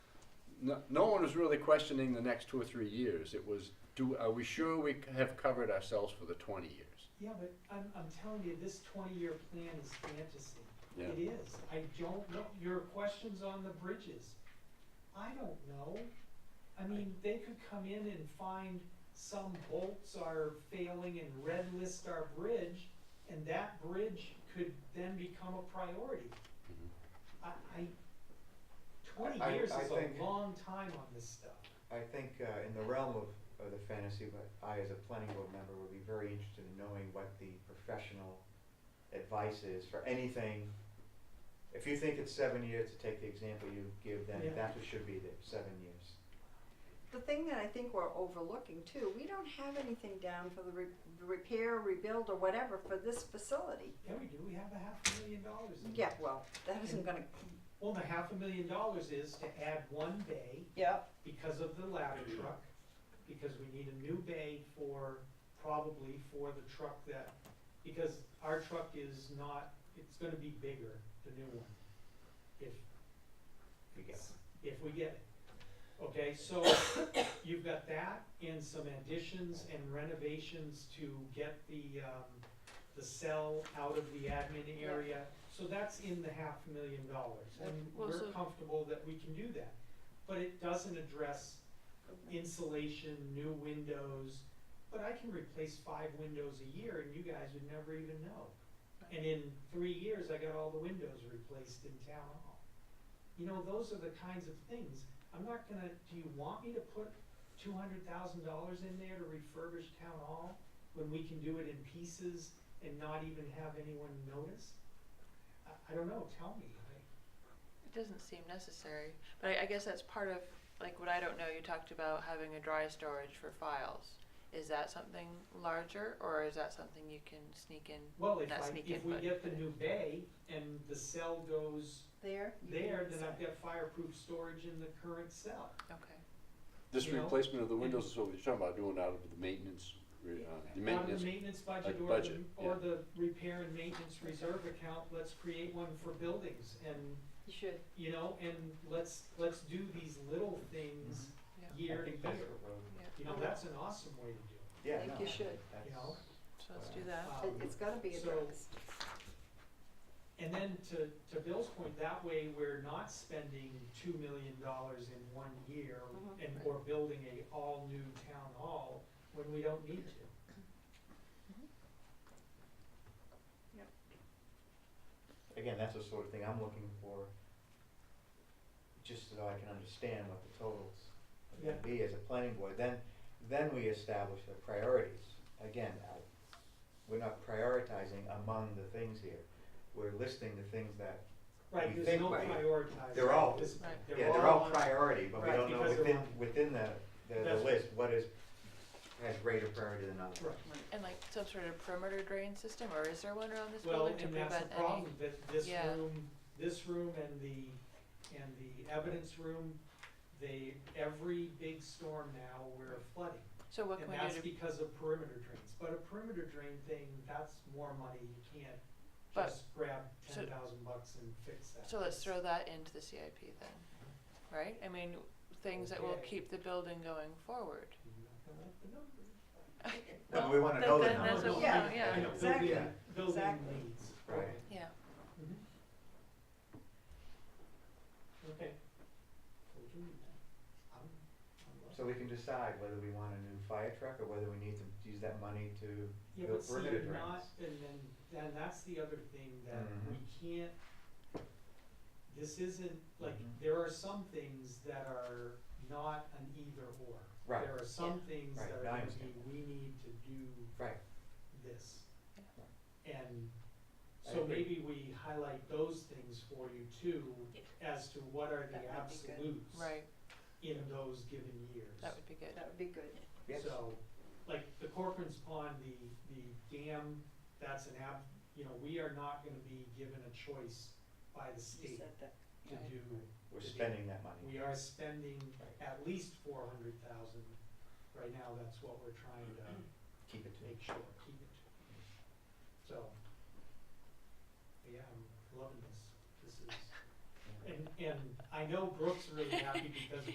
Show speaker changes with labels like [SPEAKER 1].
[SPEAKER 1] no, no one was really questioning the next two or three years. It was, do, are we sure we c- have covered ourselves for the twenty years?
[SPEAKER 2] Yeah, but I'm, I'm telling you, this twenty-year plan is fantasy. It
[SPEAKER 1] Yeah.
[SPEAKER 2] is. I don't know. Your questions on the bridges, I don't know. I mean, they could come in and find some bolts are failing and red list our bridge, and that bridge could then become a priority.
[SPEAKER 1] Mhm.
[SPEAKER 2] I, I, twenty
[SPEAKER 3] Mm-hmm. I- I-
[SPEAKER 2] years
[SPEAKER 3] I
[SPEAKER 2] is
[SPEAKER 3] think-
[SPEAKER 2] a long time on this stuff.
[SPEAKER 3] I think uh, in the realm of, of the fantasy, but I as a planning board member would be very interested in knowing what the professional advice is for anything. If you think it's seven years, to take the example you give, then
[SPEAKER 2] Yeah.
[SPEAKER 3] that's what should be there, seven years.
[SPEAKER 4] The thing that I think we're overlooking too, we don't have anything down for the re- repair, rebuild, or whatever for this facility.
[SPEAKER 2] Yeah, we do. We have a half a million dollars in
[SPEAKER 4] Yeah,
[SPEAKER 2] there.
[SPEAKER 4] well, that isn't gonna.
[SPEAKER 2] Well, the half a million dollars is to add one bay
[SPEAKER 4] Yeah.
[SPEAKER 2] because of the ladder truck, because we need a new bay for, probably for the truck that, because our truck is not, it's gonna be bigger, the new one. If,
[SPEAKER 3] You get it.
[SPEAKER 2] if we get it. Okay, so you've got that and some additions and renovations to get the, um, the cell out of the admin area. So that's in the half million dollars and
[SPEAKER 5] Yep. Well,
[SPEAKER 2] we're
[SPEAKER 5] so-
[SPEAKER 2] comfortable that we can do that. But it doesn't address insulation, new windows, but I can replace five windows a year and you guys would never even know. And in three years, I got all the windows replaced in town hall. You know, those are the kinds of things, I'm not gonna, do you want me to put two hundred thousand dollars in there to refurbish town hall? When we can do it in pieces and not even have anyone notice? I, I don't know, tell me, I,
[SPEAKER 5] It doesn't seem necessary, but I, I guess that's part of, like, what I don't know, you talked about having a dry storage for files. Is that something larger, or is that something you can sneak in?
[SPEAKER 2] well, if
[SPEAKER 5] Not
[SPEAKER 2] I,
[SPEAKER 5] sneak
[SPEAKER 2] if
[SPEAKER 5] in,
[SPEAKER 2] we
[SPEAKER 5] but-
[SPEAKER 2] get the new bay and the cell goes
[SPEAKER 4] There. you can
[SPEAKER 2] there, then
[SPEAKER 4] decide.
[SPEAKER 2] I've got fireproof storage in the current cell.
[SPEAKER 5] Okay.
[SPEAKER 1] This
[SPEAKER 2] You know,
[SPEAKER 1] replacement of the windows is what we're talking about, doing out of the maintenance, re- uh, the
[SPEAKER 2] Out of
[SPEAKER 1] maintenance.
[SPEAKER 2] the maintenance budget
[SPEAKER 1] like
[SPEAKER 2] or the,
[SPEAKER 1] budget,
[SPEAKER 2] or
[SPEAKER 1] yeah.
[SPEAKER 2] the repair and maintenance reserve account, let's create one for buildings and,
[SPEAKER 4] You should.
[SPEAKER 2] you know, and let's, let's do these little things
[SPEAKER 5] Mhm. Yeah.
[SPEAKER 2] year
[SPEAKER 3] I
[SPEAKER 2] to
[SPEAKER 3] think that's
[SPEAKER 2] year.
[SPEAKER 3] the road.
[SPEAKER 5] Yeah.
[SPEAKER 2] You know, that's an awesome way to do
[SPEAKER 3] Yeah,
[SPEAKER 4] think
[SPEAKER 3] no,
[SPEAKER 4] you should,
[SPEAKER 3] that's-
[SPEAKER 2] you know?
[SPEAKER 5] So let's do that.
[SPEAKER 2] it.
[SPEAKER 4] It,
[SPEAKER 2] Um,
[SPEAKER 4] it's gotta be
[SPEAKER 2] so-
[SPEAKER 4] addressed.
[SPEAKER 2] And then to, to Bill's point, that way we're not spending two million dollars in one year
[SPEAKER 4] Mhm.
[SPEAKER 5] Mm-hmm.
[SPEAKER 2] and, or building a all-new town hall when we don't need to.
[SPEAKER 3] Again, that's the sort of thing I'm looking for, just so I can understand what the totals are gonna be as a planning board. Then, then we establish the priorities. Again, I, we're not prioritizing among the things here. We're listing the things that,
[SPEAKER 2] Right,
[SPEAKER 3] You
[SPEAKER 2] there's no
[SPEAKER 3] think-
[SPEAKER 2] prioritizing.
[SPEAKER 3] They're all-
[SPEAKER 2] This-
[SPEAKER 5] Right.
[SPEAKER 3] yeah, they're all
[SPEAKER 2] on-
[SPEAKER 3] priority, but we
[SPEAKER 2] Right,
[SPEAKER 3] don't know
[SPEAKER 2] because they're
[SPEAKER 3] within,
[SPEAKER 2] all-
[SPEAKER 3] within the, the,
[SPEAKER 2] That's-
[SPEAKER 3] the list, what is, has greater priority than others.
[SPEAKER 2] Right.
[SPEAKER 5] And like some sort of perimeter drain system, or is there one around this
[SPEAKER 2] Well,
[SPEAKER 5] building to
[SPEAKER 2] and that's
[SPEAKER 5] prevent
[SPEAKER 2] the
[SPEAKER 5] any?
[SPEAKER 2] problem, that this
[SPEAKER 5] Yeah.
[SPEAKER 2] room, this room and the, and the evidence room, they, every big storm now, we're flooding.
[SPEAKER 5] So what can we
[SPEAKER 2] And that's
[SPEAKER 5] do to,
[SPEAKER 2] because of perimeter drains, but a perimeter drain thing, that's more money, you can't
[SPEAKER 5] But-
[SPEAKER 2] just grab
[SPEAKER 5] so-
[SPEAKER 2] ten thousand bucks and fix that.
[SPEAKER 5] so let's throw that into the CIP then, right? I mean, things that will
[SPEAKER 2] Okay.
[SPEAKER 5] keep the building going forward.
[SPEAKER 2] You're not gonna like the numbers.
[SPEAKER 3] No, but
[SPEAKER 5] Well,
[SPEAKER 3] we wanna
[SPEAKER 5] that-
[SPEAKER 3] know the
[SPEAKER 5] then that's
[SPEAKER 3] numbers.
[SPEAKER 5] what we
[SPEAKER 4] Yeah.
[SPEAKER 5] want, yeah.
[SPEAKER 2] I know,
[SPEAKER 4] Exactly.
[SPEAKER 2] building- Building
[SPEAKER 4] Exactly.
[SPEAKER 2] leads.
[SPEAKER 3] Right.
[SPEAKER 2] Okay.
[SPEAKER 5] Yeah.
[SPEAKER 2] Mhm. Okay. We can do that. I'm, I'm. up.
[SPEAKER 3] So we can decide whether we want a new fire truck or whether we need to use that money to
[SPEAKER 2] Yeah,
[SPEAKER 3] Go
[SPEAKER 2] but see,
[SPEAKER 3] perimeter
[SPEAKER 2] you're not,
[SPEAKER 3] drains.
[SPEAKER 2] and then, then that's the other thing that
[SPEAKER 3] Mhm.
[SPEAKER 2] we can't, this isn't, like,
[SPEAKER 3] Mhm.
[SPEAKER 2] there are some things that are not an either or.
[SPEAKER 3] Right.
[SPEAKER 2] There are some things
[SPEAKER 3] Right,
[SPEAKER 2] that are
[SPEAKER 3] now I
[SPEAKER 2] gonna be,
[SPEAKER 3] understand.
[SPEAKER 2] we need to do
[SPEAKER 3] Right.
[SPEAKER 2] this.
[SPEAKER 5] Yeah.
[SPEAKER 2] And
[SPEAKER 3] I
[SPEAKER 2] so
[SPEAKER 3] agree.
[SPEAKER 2] maybe we highlight those things for you too,
[SPEAKER 4] Yeah.
[SPEAKER 2] as to what are the
[SPEAKER 4] That would be good.
[SPEAKER 2] absolutes
[SPEAKER 5] Right,
[SPEAKER 2] in those given years.
[SPEAKER 5] that would be good.
[SPEAKER 4] That would be good.
[SPEAKER 3] Yes.
[SPEAKER 2] So, like the Corcoran's Pond, the, the dam, that's an app, you know, we are not gonna be given a choice by the
[SPEAKER 4] You
[SPEAKER 2] state
[SPEAKER 4] said that.
[SPEAKER 2] to
[SPEAKER 5] Right.
[SPEAKER 2] do.
[SPEAKER 3] We're
[SPEAKER 2] to do-
[SPEAKER 3] spending that money.
[SPEAKER 2] We are spending at least four hundred thousand, right now, that's what we're trying to
[SPEAKER 3] Keep it to.
[SPEAKER 2] make sure, keep it. So, yeah, I'm loving this, this is, and, and I know Brooke's really happy because